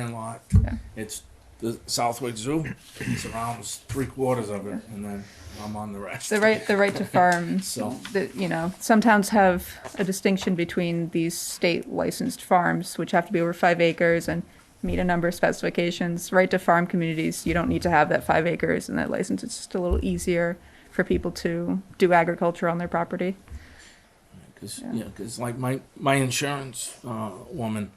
landlocked. It's the Southwick Zoo surrounds three quarters of it, and then I'm on the rest. The right, the right to farm, So- that, you know, some towns have a distinction between these state licensed farms, which have to be over five acres and meet a number of specifications. Right to farm communities, you don't need to have that five acres and that license. It's just a little easier for people to do agriculture on their property. Cause, yeah, 'cause like my, my insurance uh, woman,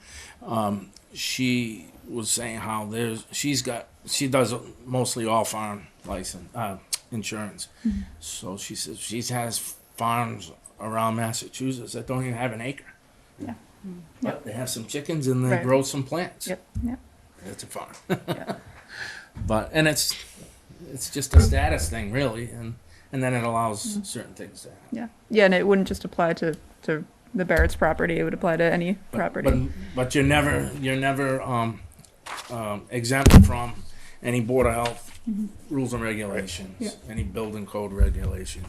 um, she was saying how there's she's got she does mostly all farm license uh, insurance, Mm-hmm. so she says she has farms around Massachusetts that don't even have an acre. Yeah. Mm-hmm. But they have some chickens and they Right. grow some plants. Yep, yep. It's a farm. But and it's it's just a status thing really, and and then it allows Mm-hmm. certain things to happen. Yeah, yeah, and it wouldn't just apply to, to the Barrett's property, it would apply to any property. But, but you're never, you're never um, um, exempt from any Board of Health rules and Mm-hmm. Yeah. regulations, any building code regulations.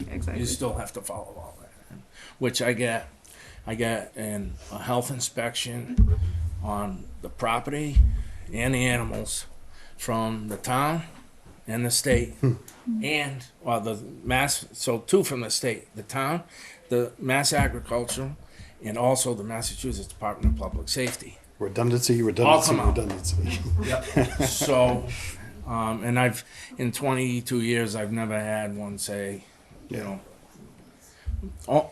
You Exactly. still have to follow all that, which I get, I get in a health inspection on the property and the animals from the town and the state and, well, the mass, so two from the state, the town, the mass agriculture, and also the Massachusetts Department of Public Safety. Redundancy, All redundancy, come out. redundancy. So, um, and I've, in twenty-two years, I've never had one say, you know, oh,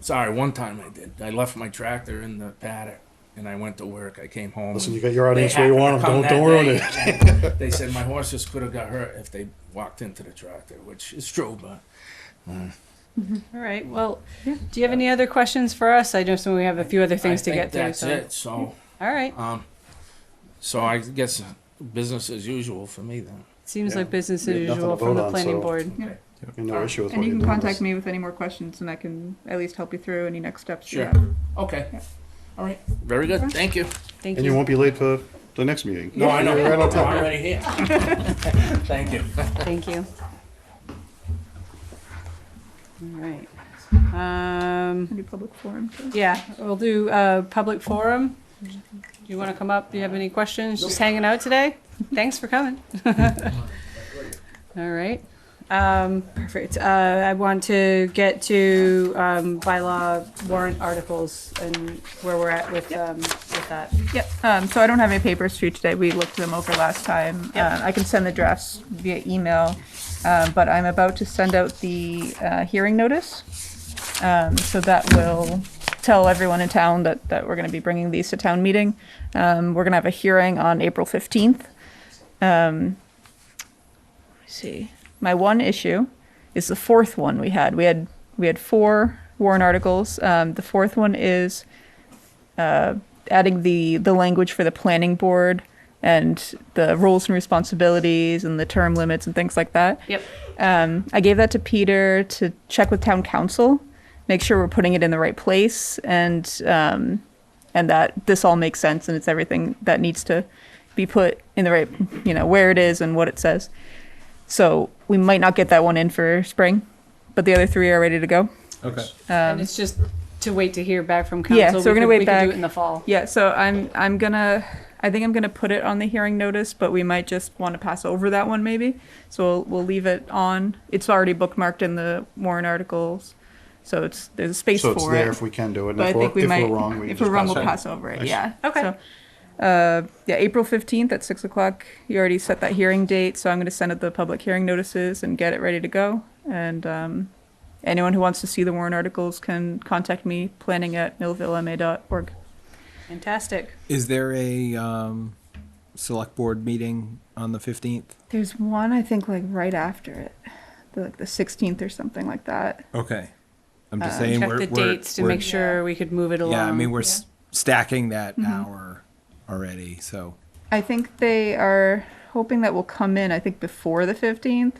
sorry, one time I did. I left my tractor in the paddock and I went to work. I came home. Listen, and you got your audience they where you want happened to them. Don't, come don't ruin that it. day, and They said my horses could have got hurt if they walked into the tractor, which is true, but All right, well, do you have any other questions for us? I just know we have a few other things I to think get through, That's so. it. So, All right, um, so I guess business as usual for me then. seems Yeah. like business We as have nothing usual to from vote the on, planning so- board. No issue with And what you can you're doing. contact me with any more questions and I can at least help you through any next steps you Sure. have. Okay. Yeah. All right. Very good. Thank you. Thank And you you. won't be late for the next meeting. No, I know. You're right on I'm time. already here. Thank you. Thank you. All right. Um, Any public forum too. yeah, we'll do a public forum. Do you want to come up? Do you have any questions? Just hanging out today? Thanks for coming. All right. Um, perfect. Uh, I want to get to, um, bylaw warrant articles and where we're at with, um, with that. Yep, um, so I don't have any papers for you today, we looked them over last time. Uh, I can send the drafts via email, um, but I'm about to send out the, uh, hearing notice. Um, so that will tell everyone in town that, that we're gonna be bringing these to town meeting. Um, we're gonna have a hearing on April fifteenth. Um, let me see, my one issue is the fourth one we had, we had, we had four warrant articles, um, the fourth one is adding the the language for the planning board and the roles and responsibilities and the term limits and things like that. Yep. Um, I gave that to Peter to check with town council, make sure we're putting it in the right place, and um, and that this all makes sense and it's everything that needs to be put in the right, you know, where it is and what it says. So we might not get that one in for spring, but the other three are ready to go. Okay. And it's just to wait to hear back from council. Yeah, so we're We gonna could- wait we could do back. it in the fall. Yeah, so I'm I'm gonna I think I'm gonna put it on the hearing notice, but we might just want to pass over that one maybe. So we'll, we'll leave it on. It's already bookmarked in the warrant articles, so it's there's a space So for it's it. there if we can do it. And but I if we're, think we if might we're wrong, we if just we're wrong, pass we'll it. pass over it. Excellent. Yeah. Okay. So, uh, yeah, April fifteenth at six o'clock. You already set that hearing date, so I'm gonna send out the public hearing notices and get it ready to go. And um, anyone who wants to see the warrant articles can contact me planning at millvillema.org. Fantastic. Is there a um, select board meeting on the fifteenth? There's one I think like right after it, the, like the 16th or something like that. Okay. I'm just Uh, saying Check we're, the we're- dates to we're- make sure we could move it along. Yeah, I mean we're s stacking that Mm-hmm. hour already, so I think they are hoping that will come in. I think before the 15th.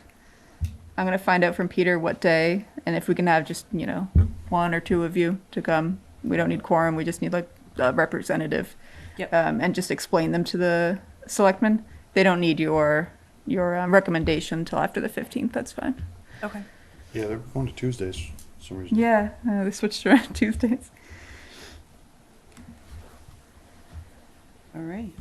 I'm gonna find out from Peter what day and if we can have just you know one or two of you to come. We don't need quorum. We just need like a representative. Yep. Um, and just explain them to the selectmen. They don't need your your um, recommendation until after the 15th. That's fine. Okay. Yeah, they're going to Tuesdays for some reason. Yeah, uh, they switched around Tuesdays. All right.